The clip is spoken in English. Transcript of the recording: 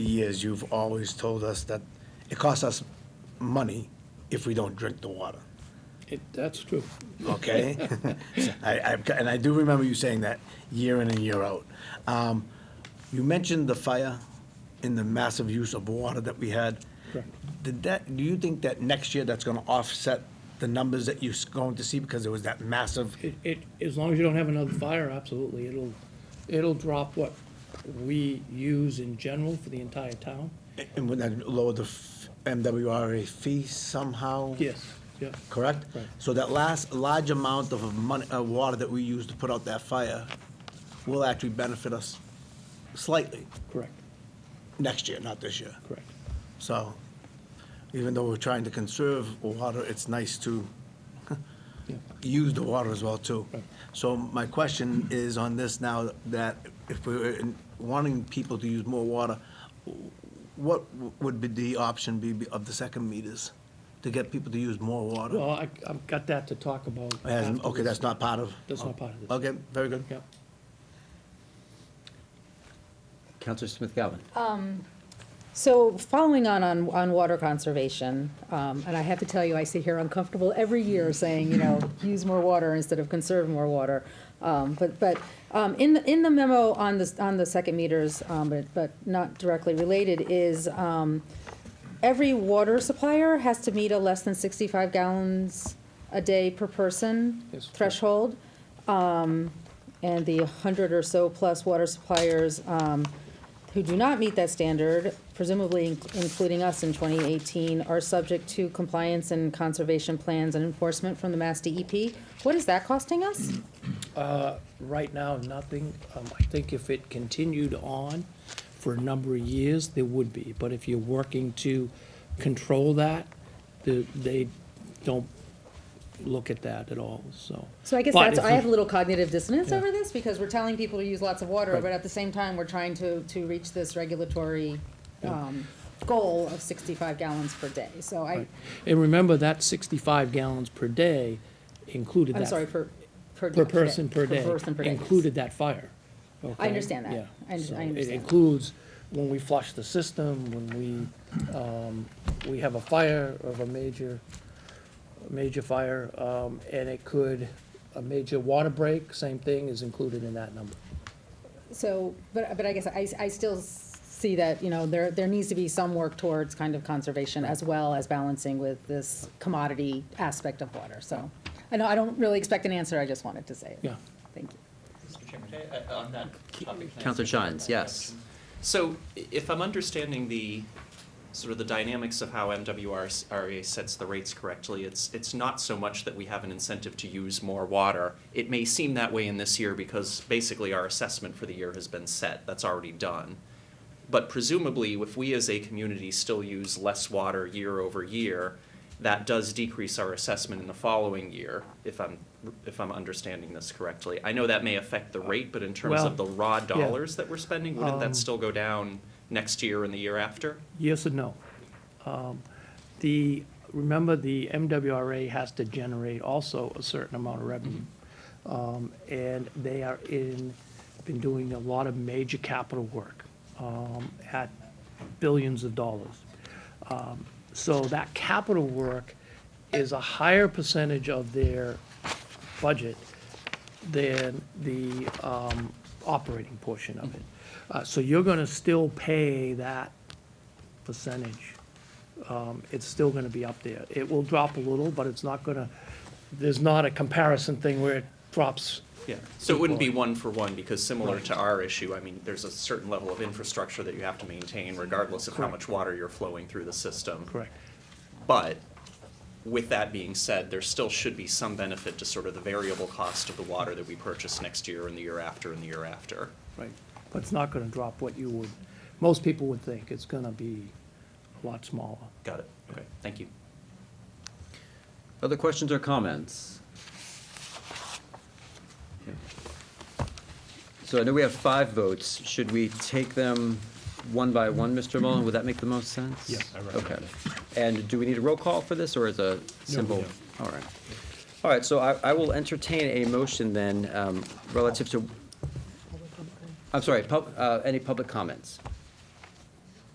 years, you've always told us that it costs us money if we don't drink the water, It, that's true. okay? I, I, and I do remember you saying that year in and year out. Um, you mentioned the fire and the massive use of water that we had. Correct. Did that, do you think that next year that's gonna offset the numbers that you're going to see because there was that massive? It, it, as long as you don't have another fire, absolutely, it'll, it'll drop what we use in general for the entire town. And would that lower the f- MWRA fee somehow? Yes, yeah, Correct? Right. So that last large amount of money, uh, water that we use to put out that fire will actually benefit us slightly correct, next year, not this year. correct. So even though we're trying to conserve water, it's nice to Yeah. use the water as well too. Right. So my question is on this now, that if we're in- wanting people to use more water, what would be the option be of the second meters to get people to use more water? Well, I, I've got that to talk about. As- Okay, afterwards. that's not part of? That's not part of this. Okay, very good. Yep. Counselor Smith Galvin. So following on, on, on water conservation, um, and I have to tell you, I sit here uncomfortable every year saying, you know, use more water instead of conserve more water. Um, but, but, um, in, the- in the memo on the, on the second meters, um, but, but not directly related, is, um, every water supplier has to meet a less than sixty-five gallons a day per person Yes. threshold. Um, And the 100 or so plus water suppliers um, who do not meet that standard, presumably in- including us in 2018, are subject to compliance and conservation plans and enforcement from the Mass DEP. What is that costing us? Right now, nothing. Um, I think if it continued on for a number of years, there would be. But if you're working to control that, the, they don't look at that at all, so. So I guess But that's, if I we- have a little cognitive dissonance Yeah. over this because we're telling people to use lots of water, Right. but at the same time, we're trying to, to reach this regulatory um, goal of 65 gallons per day. So I, Right. And remember, that sixty-five gallons per day included that. I'm sorry, per, per. Per person per day. person per day, yes. Included that fire. okay? understand that. Yeah. I under- So I It understand that. includes when we flush the system, when we, um, we have a fire of a major, a major fire, um, and it could, a major water break, same thing is included in that number. So, but, but I guess I, I still s- see that, you know, there, there needs to be some work towards kind of conservation as well as balancing with this commodity aspect of water, so. I know, I don't really expect an answer, I just wanted to say it. Yeah. Thank you. Mr. Chairman, can I- uh, on that topic. can I ask Counselor you Shines, that yes. question? So i- if I'm understanding the, sort of the dynamics of how MWRA sets the rates correctly, it's, it's not so much that we have an incentive to use more water. It may seem that way in this year because basically our assessment for the year has been set, that's already done. But presumably, if we as a community still use less water year over year, that does decrease our assessment in the following year, if I'm, if I'm understanding this correctly. I know that may affect the rate, but in terms of the Well, raw yeah. dollars that we're spending, wouldn't Um, that still go down next year and the year after? Yes and no. Um, The, remember, the MWRA has to generate also a certain amount of revenue. Um, And they are in, been doing a lot of major capital work um, at billions of dollars. Um, So that capital work is a higher percentage of their budget than the um, operating portion of it. Uh, So you're going to still pay that percentage, um, it's still gonna be up there. It will drop a little, but it's not gonna, there's not a comparison thing where it drops. Yeah, so it wouldn't be one for one, because similar to our issue, I mean, there's a certain level of infrastructure that you have to maintain regardless of how Correct. much water you're flowing through the system. Correct. But with that being said, there still should be some benefit to sort of the variable cost of the water that we purchase next year and the year after and the year after. Right. But it's not gonna drop what you would, most people would think. It's gonna be a lot smaller. Got it? Okay, thank you. Other questions or comments? So I know we have five votes. Should we take them one by one, Mr. Mullen? Would that make the most sense? Yes. I Okay. And do we need a roll call for this, or is a simple? All right. All right, so I, I will entertain a motion then um, relative to, I'm sorry, pub, uh, any public comments?